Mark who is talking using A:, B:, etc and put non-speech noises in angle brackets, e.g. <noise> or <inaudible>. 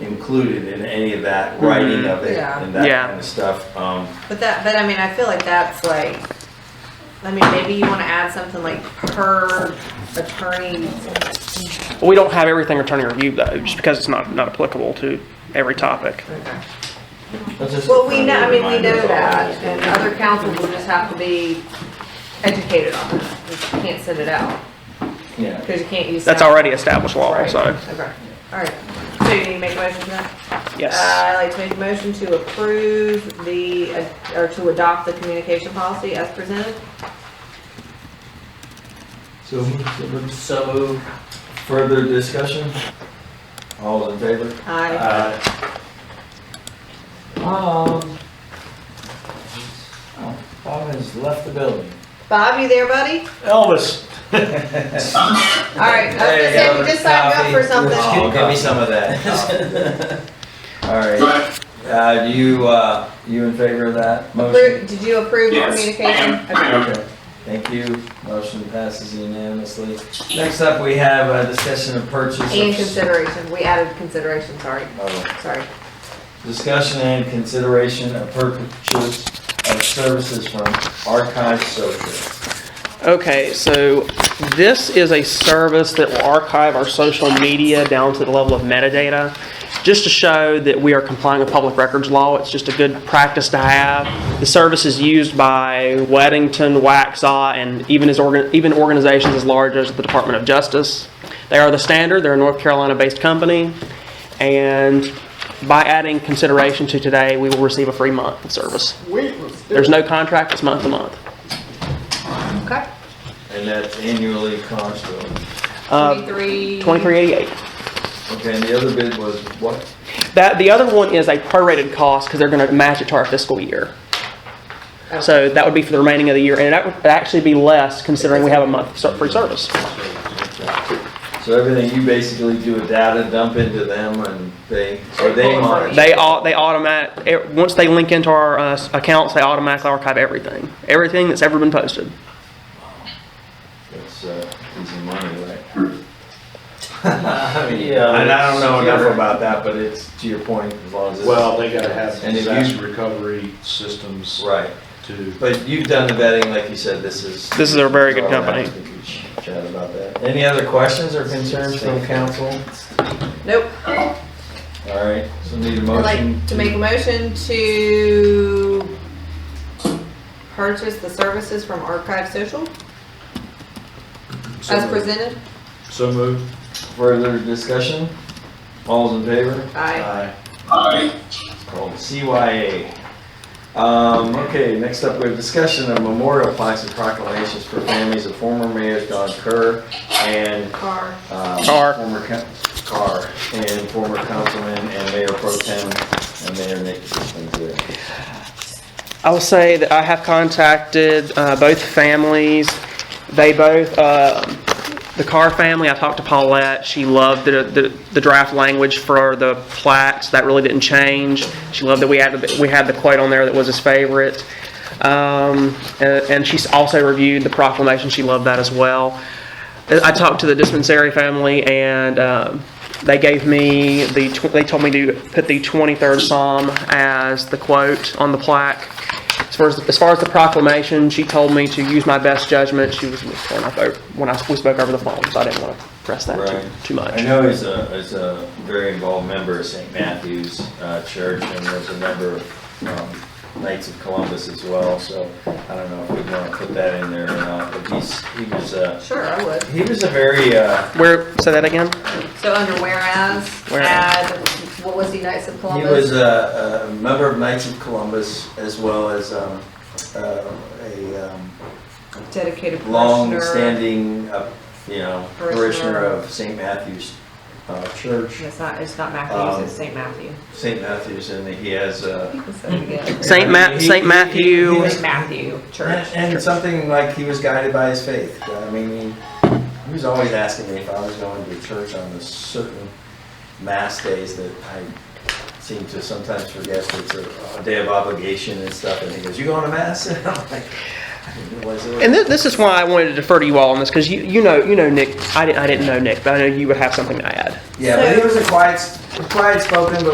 A: included in any of that writing of it
B: Yeah.
A: and that
C: Yeah.
A: kind of stuff. Um,
B: But that, but I mean, I feel like that's like, I mean, maybe you wanna add something like per attorney.
C: We don't have everything attorney review though, just because it's not, not applicable to every topic.
A: that's just a
B: Well, we know, I
A: friendly
B: mean, we
A: reminder
B: know
A: of all
B: that,
A: this.
B: and uh, other councils will just have to be educated on it. You can't send it out,
A: Yeah.
B: cause you can't use.
C: That's
B: that.
C: already established law,
B: Right.
C: so,
B: Okay, alright. So you need to make a motion for that? Uh,
C: yes.
B: I'd like to make a motion to approve the, uh, or to adopt the communication policy as presented.
A: So, moved. so moved. further discussion? All in favor?
B: I,
A: Aye. Um. oh, Bob has left the building.
B: Bob, you there, buddy?
D: Elvis,
A: uh,
B: Alright, I was gonna say, we just signed you up for something.
A: Oh, give me some of that. <laughs> All right. Uh, do you, uh, you in favor of that motion?
B: Appro- Did you approve the
E: Yes,
B: communication?
E: I am.
B: Okay.
A: Okay. Thank you. Motion passes unanimously. Next up, we have a discussion of purchase of.
B: And consideration, we added consideration, sorry,
A: Oh.
B: sorry.
A: Discussion and consideration of purchase of services from Archive Social.
C: Okay, so this is a service that will archive our social media down to the level of metadata, just to show that we are complying with public records law. It's just a good practice to have. The service is used by Weddington, Waxaw, and even as, organ- even organizations as large as the Department of Justice. They are the standard, they're a North Carolina-based company, and by adding consideration to today, we will receive a free month of service. There's no contract, it's month to month.
B: Okay.
A: And that's annually constant.
C: Uh,
B: Twenty-three.
C: 2388.
A: Okay, and the other bid was what?
C: That, the other one is a prorated cost because they're going to match it to our fiscal year.
B: Okay.
C: So that would be for the remaining of the year, and that would actually be less considering we have a month ser- free service.
A: So everything, you basically do a data dump into them and they, or they monitor?
C: They all, they automatic, e- once they link into our uh, s- accounts, they automatically archive everything, everything that's ever been posted.
A: It's, uh, easy money, <laughs> right?
D: Yeah,
A: And I don't know enough
D: secure.
A: about that, but it's to your point, as long as it's.
D: well, they gotta have
A: And if you-
D: disaster recovery systems
A: Right.
D: to,
A: But you've done the vetting, like you said, this is.
C: This is a very good company.
A: We could Chat about that. Any other questions or concerns from council?
B: Nope,
A: All right, so need a
B: I'd
A: motion.
B: like to make a motion to purchase the services from Archive Social
D: So
B: as
D: moved.
B: presented.
D: so moved.
A: Further discussion? All's in favor?
B: Aye.
E: Aye.
A: It's called CYA. Um, okay, next up, we have discussion of memorial plaques and proclamations for families of former mayor Don Kerr and,
B: Carr.
A: um,
C: Carr.
A: Former coun- Carr, and former councilman and mayor pro tem and mayor Nick Kissinger.
C: I will say that I have contacted uh, both families. They both, uh, the Carr family, I talked to Paulette. She loved the, the, the draft language for the plaques. That really didn't change. She loved that we added, we had the quote on there that was his favorite. Um, and, and she's also reviewed the proclamation. She loved that as well. I I talked to the dispensary family, and um, they gave me the, tw- they told me to put the 23rd Psalm as the quote on the plaque. As far as, as far as the proclamation, she told me to use my best judgment. She was torn up over, when I, we spoke over the phone, so I didn't want to press that
A: Right.
C: too, too
A: I
C: much.
A: know he's a, he's a very involved member of St. Matthew's uh, Church, and there's a member of um, Knights of Columbus as well, so I don't know if we want to put that in there or not, but he's, he was, uh,
B: Sure, I would.
A: he was a very, uh,
C: Where, say that again?
B: So under whereas,
C: Whereas.
B: add, what was he, Knights of
A: he
B: Columbus?
A: was a, a member of Knights of Columbus as well as um, uh, a um,
B: Dedicated parishioner.
A: long-standing, uh, you know,
B: Parishioner.
A: parishioner of St. Matthew's uh, Church,
B: It's not, it's not Matthews, it's
A: Um,
B: St. Matthew. <laughs>
A: St. Matthew's, and he has, uh,
B: You can say it again.
C: Saint Ma-
A: He-
C: Saint
A: he-
C: Matthew.
A: he was-
B: St. Matthew Church.
A: And, and something like he was guided by his faith. I mean, he, he was always asking me if I was going to church on the certain mass days that I seem to sometimes forget that it's a, a day of obligation and stuff. And he goes, "You going to mass?" <laughs> And I'm like, I didn't realize it was.
C: And this, this is why I wanted to defer to you all on this, because you, you know, you know Nick, I didn't, I didn't know Nick, but I know you would have something to add.
A: yeah, but he was a quiet, quiet spoken, but